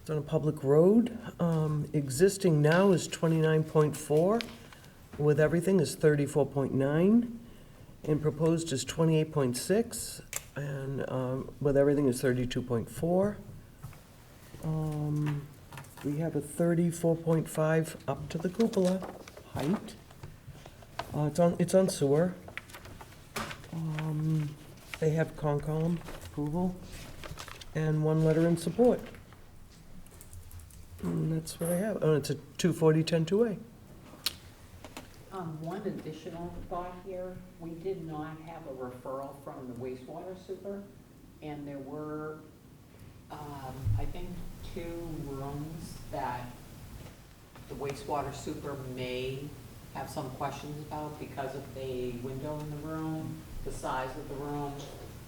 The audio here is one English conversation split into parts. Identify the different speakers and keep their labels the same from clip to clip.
Speaker 1: It's on a public road. Um, Existing now is 29.4, with everything is 34.9, and proposed is 28.6, and um, with everything is 32.4. Um, We have a 34.5 up to the cupola height. Uh, It's on, it's on sewer. Um, They have Concom approval and one letter in support. And that's what I have. Oh, it's a 240-10-2A.
Speaker 2: Um, one additional thought here, we did not have a referral from the wastewater super, and there were, um, I think, two rooms that the wastewater super may have some questions about because of the window in the room, the size of the room,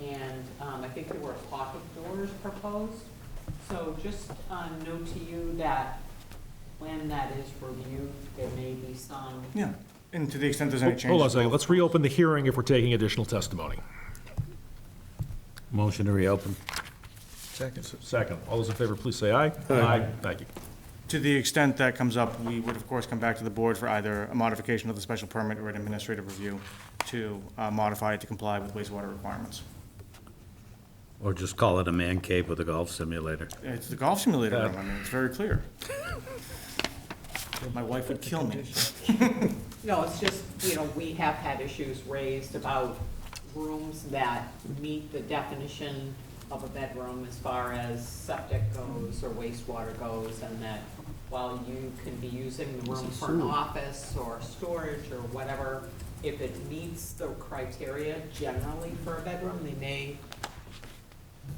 Speaker 2: and, um, I think there were pocket doors proposed. So just, uh, note to you that when that is reviewed, there may be some
Speaker 3: Yeah, and to the extent there's any changes.
Speaker 4: Hold on a second, let's reopen the hearing if we're taking additional testimony.
Speaker 5: Motion to reopen.
Speaker 4: Second. Second. All those in favor, please say aye. Aye. Thank you.
Speaker 3: To the extent that comes up, we would of course come back to the board for either a modification of the special permit or an administrative review to uh, modify it to comply with wastewater requirements.
Speaker 5: Or just call it a man cave with a golf simulator.
Speaker 3: It's the golf simulator room, I mean, it's very clear. My wife would kill me.
Speaker 2: No, it's just, you know, we have had issues raised about rooms that meet the definition of a bedroom as far as septic goes or wastewater goes, and that while you can be using the room for an office or storage or whatever, if it meets the criteria generally for a bedroom, they may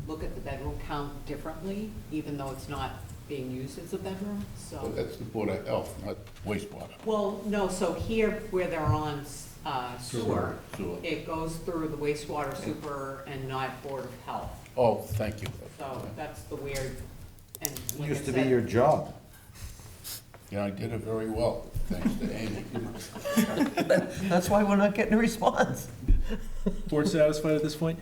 Speaker 2: look at the bedroom count differently, even though it's not being used as a bedroom, so.
Speaker 6: Well, That's the Board of Health, not wastewater.
Speaker 2: Well, no, so here where they're on uh, sewer,
Speaker 6: Sewer.
Speaker 2: it goes through the wastewater super and not Board of Health.
Speaker 6: Oh, thank you.
Speaker 2: So that's the weird, and like I
Speaker 7: Used to be
Speaker 2: said-
Speaker 7: your job.
Speaker 6: Yeah, I did it very well, thanks to Amy.
Speaker 1: That's why we're not getting a response.
Speaker 4: Board satisfied at this point?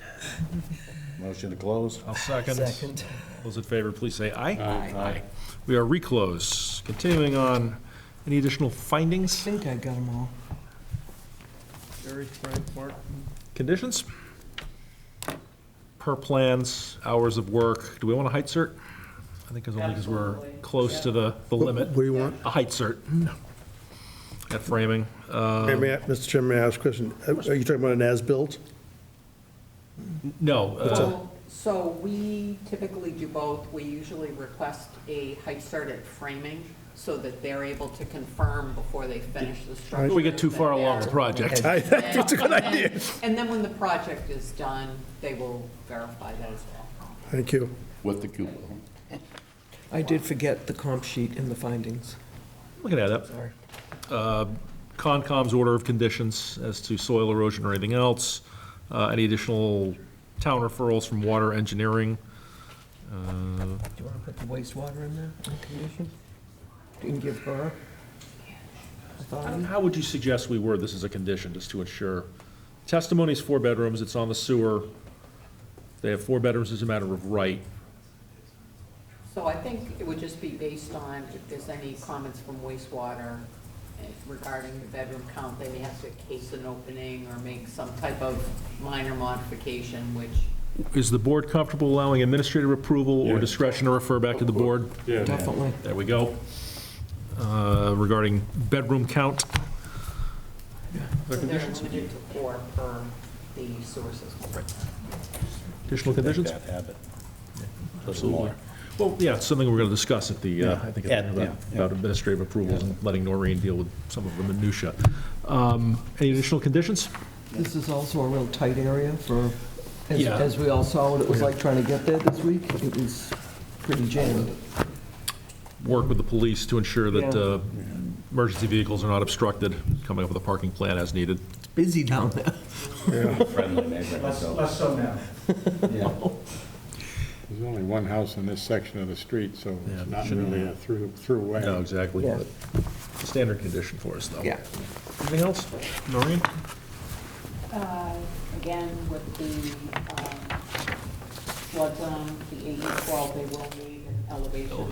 Speaker 7: Motion to close.
Speaker 4: I'll second. Second. Those in favor, please say aye. Aye. We are reclosed. Continuing on, any additional
Speaker 1: I
Speaker 4: findings,
Speaker 1: think I got them all.
Speaker 3: Jerry, Frank, Mark?
Speaker 4: conditions? Per plans, hours of work, do we want a height cert? I think it's only because we're
Speaker 2: Absolutely.
Speaker 4: close to the, the limit.
Speaker 8: What do you want?
Speaker 4: A height cert. At framing.
Speaker 8: Hey, may I- Mr. Chairman, may I ask a question? Are are you talking about an as-built?
Speaker 4: No, uh,
Speaker 2: So- So we typically do both. We usually request a height cert at framing so that they're able to confirm before they finish the structure.
Speaker 4: we get too
Speaker 2: that
Speaker 4: far along the
Speaker 2: they're-
Speaker 4: project.
Speaker 8: I think that's a good idea.
Speaker 2: And then when the project is done, they will verify that as well.
Speaker 8: Thank you.
Speaker 6: With the cupola.
Speaker 1: I did forget the comp sheet and the findings.
Speaker 4: We can add that.
Speaker 1: Sorry.
Speaker 4: Concom's order of conditions as to soil erosion or anything else, uh, any additional town referrals from water engineering. Uh,
Speaker 1: Do you want to put the wastewater in there, in condition? You can give her authority.
Speaker 4: How would you suggest we word this as a condition, just to ensure? Testimony is four bedrooms, it's on the sewer, they have four bedrooms as a matter of right.
Speaker 2: So I think it would just be based on if there's any comments from wastewater eh, regarding the bedroom count, they may have to case an opening or make some type of minor modification, which,
Speaker 4: Is the board comfortable allowing administrative approval or discretion to refer back to the board?
Speaker 1: Definitely.
Speaker 4: There we go. Uh, Regarding bedroom count,
Speaker 2: so they're limited to four per the sewer system.
Speaker 4: additional conditions?
Speaker 5: That habit.
Speaker 4: Absolutely. Well, yeah, it's something we're going to discuss at the, uh, I think,
Speaker 5: Yeah,
Speaker 4: about
Speaker 5: yeah,
Speaker 4: about administrative approvals and letting Noreen deal with some of the minutia. Um, Any additional conditions?
Speaker 1: This is also a real tight area for, as,
Speaker 4: Yeah.
Speaker 1: as we all saw what it was like trying to get there this week. It was pretty jammed.
Speaker 4: Work with the police to ensure that
Speaker 1: Yeah.
Speaker 4: uh, emergency vehicles are not obstructed, coming up with a parking plan as needed.
Speaker 1: It's busy down there.
Speaker 5: Friendly neighborhood, so.
Speaker 3: so now.
Speaker 9: There's only one house in this section of the street, so
Speaker 4: Yeah,
Speaker 9: it's not
Speaker 4: shouldn't
Speaker 9: really a through, throughway.
Speaker 4: No, exactly.
Speaker 1: Yeah.
Speaker 4: but Standard condition for us, though.
Speaker 1: Yeah.
Speaker 4: Anything else? Noreen?
Speaker 2: Uh, Again, with E the um, flood zone, the 812, they will need an elevation